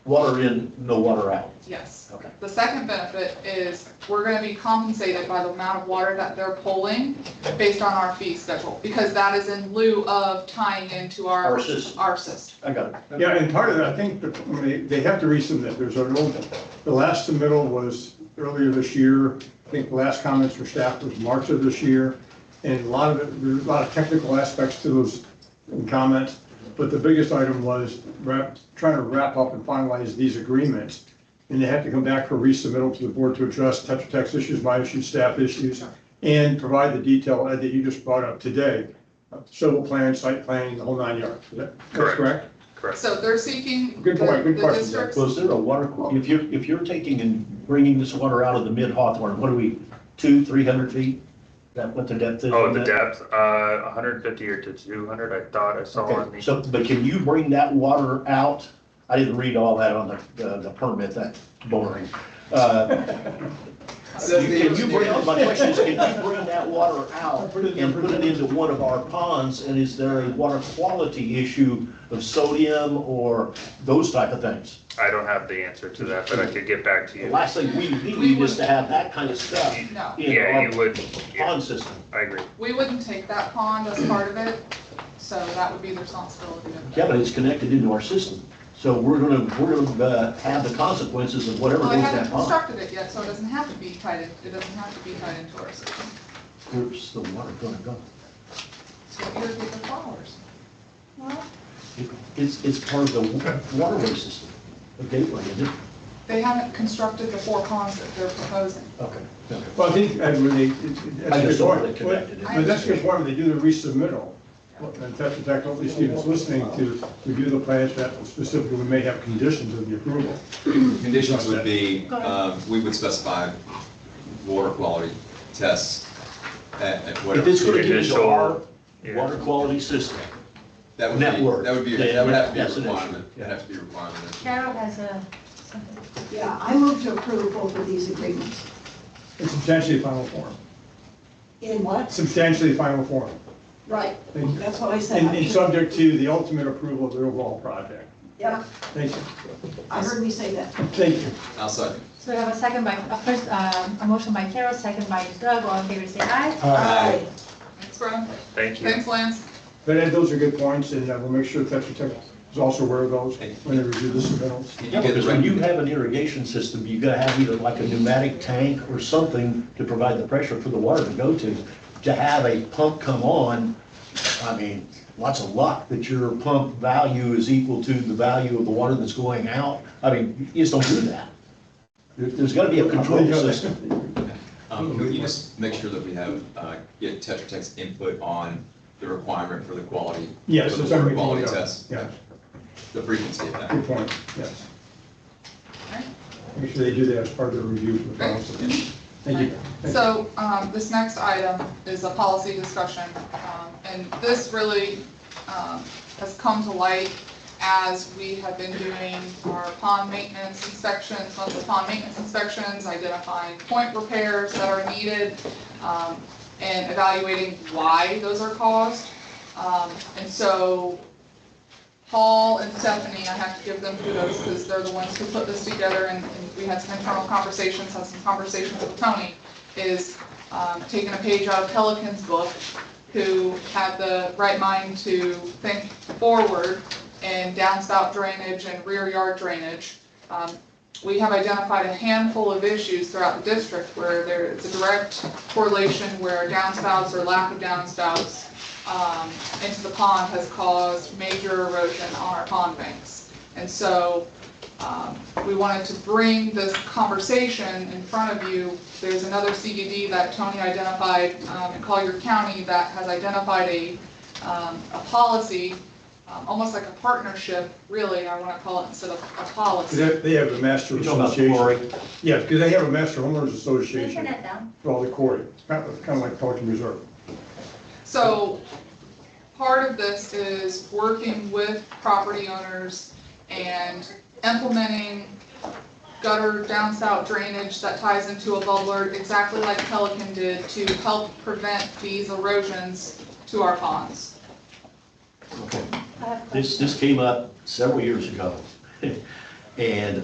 water in, no water out. Yes. Okay. The second benefit is we're gonna be compensated by the amount of water that they're pulling based on our fee schedule, because that is in lieu of tying into Our our, system, our system. I got it. Yeah, and part of that, I think, that when they, they have to resubmit, there's an old, the last submittal was earlier this year. I think the last comments from staff was March of this year, and a lot of it, there's a lot of technical aspects to those comments. But the biggest item was wrap, trying to wrap up and finalize these agreements. And they have to come back for resubmittal to the board to address Tetra Tech's issues, my issues, staff issues, and provide the detail, Ed, that you just brought up today. Civil plan, site planning, the whole nine yards. Is that that's Correct. correct? Correct. So they're seeking. Good point, good the- question, The districts, Was there a water, qu- if you're, if you're taking and bringing this water out of the mid Hawthorne, what are we, two, three hundred feet? Is That what the depth is? Oh, on the that? depth, uh, hundred and fifty or to two hundred, I thought I saw on Okay, the, so, but can you bring that water out? I didn't read all that on the, the- the permit, that's boring. Uh, you- Can you bring, my question is, can you bring that water out and put it into one of our ponds? And is there a water quality issue of sodium or those type of things? I don't have the answer to that, but I could get back to The you. last thing we need is to have that kind of stuff No, in Yeah, you our would, yeah, pond system. I agree. we wouldn't take that pond as part of it, so that would be the responsibility of. Yeah, but it's connected into our system. So we're gonna, we're gonna uh, have the consequences of whatever Well, I goes in haven't that pond. constructed it yet, so it doesn't have to be tied in, it doesn't have to be tied into our system. Where's the water gonna go? So irrigate the flowers. Well, It's, it's part of the wa- waterway system, the gateway, isn't it? they haven't constructed the four ponds that they're proposing. Okay. okay. Well, I think, Ed, when they, it- it- that's I a just good don't want point. it connected. in. But that's a good point, when they do the resubmittal, and Tetra Tech, hopefully Stephen's listening to review the plans that specifically we may have conditions of the approval. Conditions would be, um, we would specify water quality tests at, at If whatever. it's gonna get into Initial- our yeah. water quality system, That would be, network. that would be, Yeah, that would have to be that's a an issue. requirement, that'd have to be a requirement. Carol has a, something. Yeah, I move to approve both of these agreements. It's substantially final form, In what? substantially final form. Right, Thank you. that's what I said. And, and subject to the ultimate approval of the overall project. Yeah, Thank you, I heard me say that. thank you. I'll second. so we have a second by, a first, um, a motion by Carol, second by Doug, all in favor, say aye. Uh, Aye. Thanks, Brian. Thank you. Thanks, Lance. But Ed, those are good points, and uh, we'll make sure Tetra Tech is also aware of those when they review the submittals. Did you Yeah, get the because when you recommend- have an irrigation system, you gotta have either like a pneumatic tank or something to provide the pressure for the water to go to. To have a pump come on, I mean, lots of luck that your pump value is equal to the value of the water that's going out. I mean, you just don't do that. There- There's gotta be a control system. Um, Can you just make sure that we have, uh, get Tetra Tech's input on the requirement for the quality? Yes, for it's the water something. quality tests, Yeah, the frequency of that. good point, yes. Alright. Make sure they do that as part of their review for the policy. Thank you. Thank you. So, um, this next item is a policy discussion, um, and this really, um, has come to light as we have been doing our pond maintenance inspections, monthly pond maintenance inspections, identifying point repairs that are needed, um, and evaluating why those are caused. Um, and so Paul and Stephanie, I have to give them kudos because they're the ones who put this together and and we had some internal conversations, had some conversations with Tony, is um, taking a page out of Pelican's book, who had the right mind to think forward in downspout drainage and rear yard drainage. Um, We have identified a handful of issues throughout the district where there is a direct correlation where downspouts or lack of downspouts um, into the pond has caused major erosion on our pond banks. And so um, we wanted to bring this conversation in front of you. There's another CDD that Tony identified um, in Collier County that has identified a, um, a policy, um, almost like a partnership, really, I want to call it instead of a policy. They they have a master You're talking about association. chlorine. Yeah, because they have a master homeowners Can you turn association that down? for all the quarry. It's kind of kind of like Pelican Reserve. So part of this is working with property owners and implementing gutter downspout drainage that ties into a bubbler, exactly like Pelican did, to help prevent these erosions to our ponds. Okay. I have a This, question. this came up several years ago. And